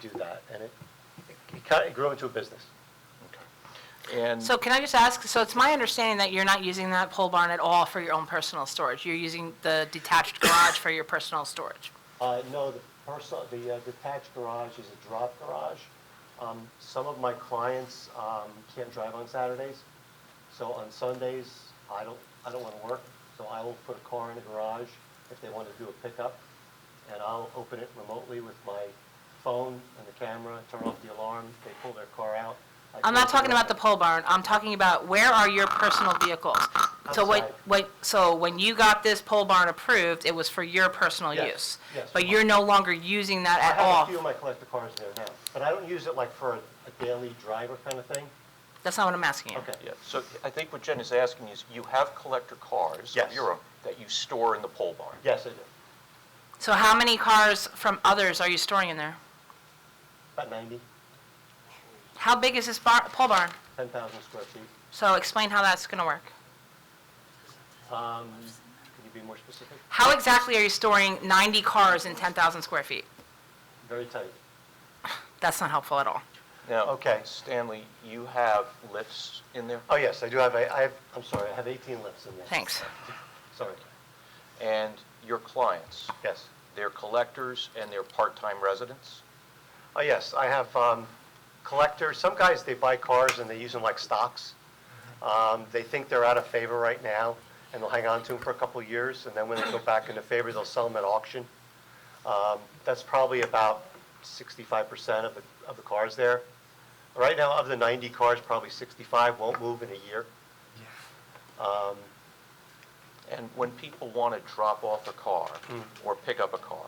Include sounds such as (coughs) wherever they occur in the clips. do that, and it, it kind of grew into a business. And, So can I just ask, so it's my understanding that you're not using that pole barn at all for your own personal storage? You're using the detached (coughs) garage for your personal storage? Uh, no, the personal, the uh, detached garage is a drop garage. Um, some of my clients, um, can't drive on Saturdays, so on Sundays, I don't, I don't wanna work, so I will put a car in the garage if they wanna do a pickup, and I'll open it remotely with my phone and the camera, turn off the alarm, they pull their car out. I I'm not close talking about the door. pole barn, I'm talking about where are your personal vehicles? So what, Outside. what, so when you got this pole barn approved, it was for your personal Yes, use? yes. But you're no longer using that I at have a all? few of my collector cars there now, but I don't use it like for a a daily driver kind of thing. That's not what I'm asking you. Okay. yeah, so I think what Jen is asking is, you have collector cars of Yes. your own that you store in the pole barn? Yes, I do. So how many cars from others are you storing in there? About 90, How big is this bar, pole barn? 10,000 square feet. So explain how that's gonna work. Um, Can you be more specific? How exactly are you storing 90 cars in 10,000 square feet? Very tight. That's not helpful at all. Now, Okay. Stanley, you have lifts in there, Oh, yes, I do have, a- I have, I'm sorry, I have 18 lifts in there. Thanks. Sorry. and your clients, Yes. they're collectors and they're part-time residents? Oh, yes, I have um, collectors, some guys, they buy cars and they use them like stocks. Um, They think they're out of favor right now, and they'll hang on to them for a couple of years, and then when they go back into favor, they'll sell them at auction. Um, That's probably about 65% of the, of the cars there. Right now, of the 90 cars, probably 65 won't move in a year. Um, And when people want to drop off a car or pick up a car,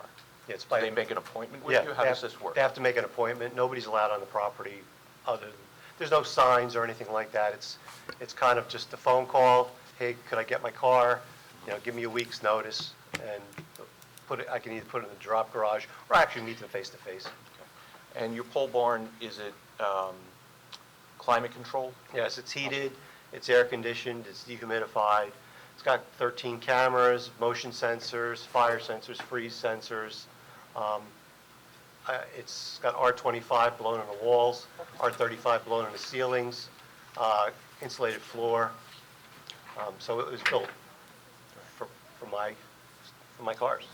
yeah, It's do by. they make an appointment with Yeah, you? How they does have- this work? They have to make an appointment, nobody's allowed on the property other than, there's no signs or anything like that. It's, it's kind of just a phone call, hey, could I get my car? You know, give me a week's notice and put it, I can either put it in the drop garage or actually meet them face to face. And your pole barn, is it um, climate controlled? Yes, it's heated, it's air conditioned, it's dehumidified. It's got 13 cameras, motion sensors, fire sensors, freeze sensors. Um, I- It's got R25 blown on the walls, R35 blown on the ceilings, uh, insulated floor. Um, So it was built for for my, for my cars.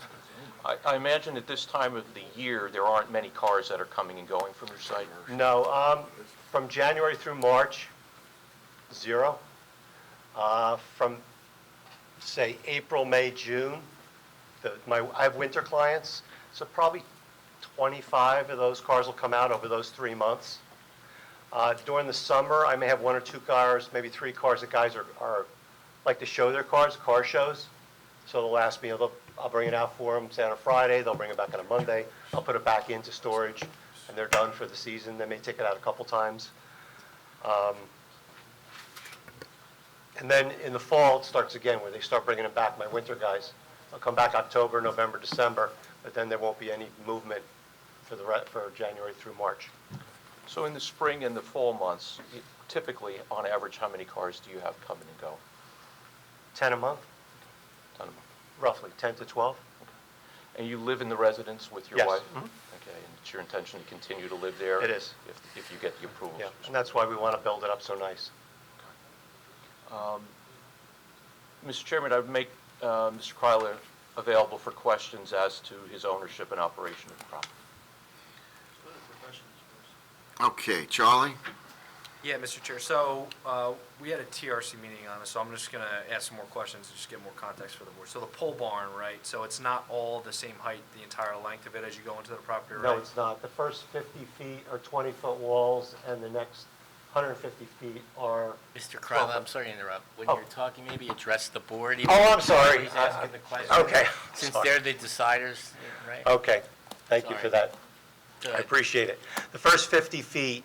I- I imagine at this time of the year, there aren't many cars that are coming and going from your site. No, um, from January through March, zero. Uh, From, say, April, May, June, the, my, I have winter clients, so probably 25 of those cars will come out over those three months. Uh, During the summer, I may have one or two cars, maybe three cars that guys are, are, like to show their cars, car shows. So they'll ask me, they'll- I'll bring it out for them, say on a Friday, they'll bring it back on a Monday, I'll put it back into storage, and they're done for the season, they may take it out a couple times. Um, And then in the fall, it starts again, where they start bringing it back, my winter guys. They'll come back October, November, December, but then there won't be any movement for the, re- for January through March. So in the spring and the fall months, typically, on average, how many cars do you have coming and going? 10 a month, Ton of them. roughly, 10 to 12. And you live in the residence with your Yes. wife? Mhm. Okay, and it's your intention to continue to live there? It is. If if you get the approvals? Yeah, and that's why we want to build it up so nice. Mr. Chairman, I'd make uh, Mr. Kryler available for questions as to his ownership and operation of the property. Okay, Charlie? Yeah, Mr. Chair, so uh, we had a TRC meeting on this, so I'm just going to ask some more questions and just get more context for the board. So the pole barn, right, so it's not all the same height, the entire length of it as you go into the property, right? No, it's not. The first 50 feet are 20-foot walls, and the next 150 feet are... Mr. Crowell, I'm sorry to interrupt. When you're Oh. talking, maybe address the board. even Oh, though I'm sorry. Uh, He's asking the question. Okay, Since sorry. they're the deciders, right? Okay, thank you for Sorry. that. I appreciate it. The first 50 feet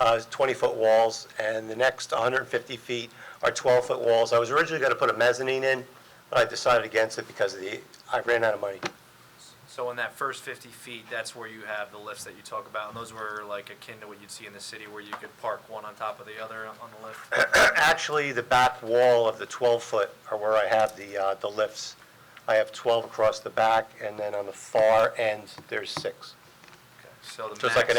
uh, is 20-foot walls, and the next 150 feet are 12-foot walls. I was originally going to put a mezzanine in, but I decided against it because of the, I ran out of money. So in that first 50 feet, that's where you have the lifts that you talk about, and those were like akin to what you'd see in the city where you could park one on top of the other on the lift? Actually, the back wall of the 12-foot are where I have the, uh, the lifts. I have 12 across the back, and then on the far end, there's six. So the Just like an max-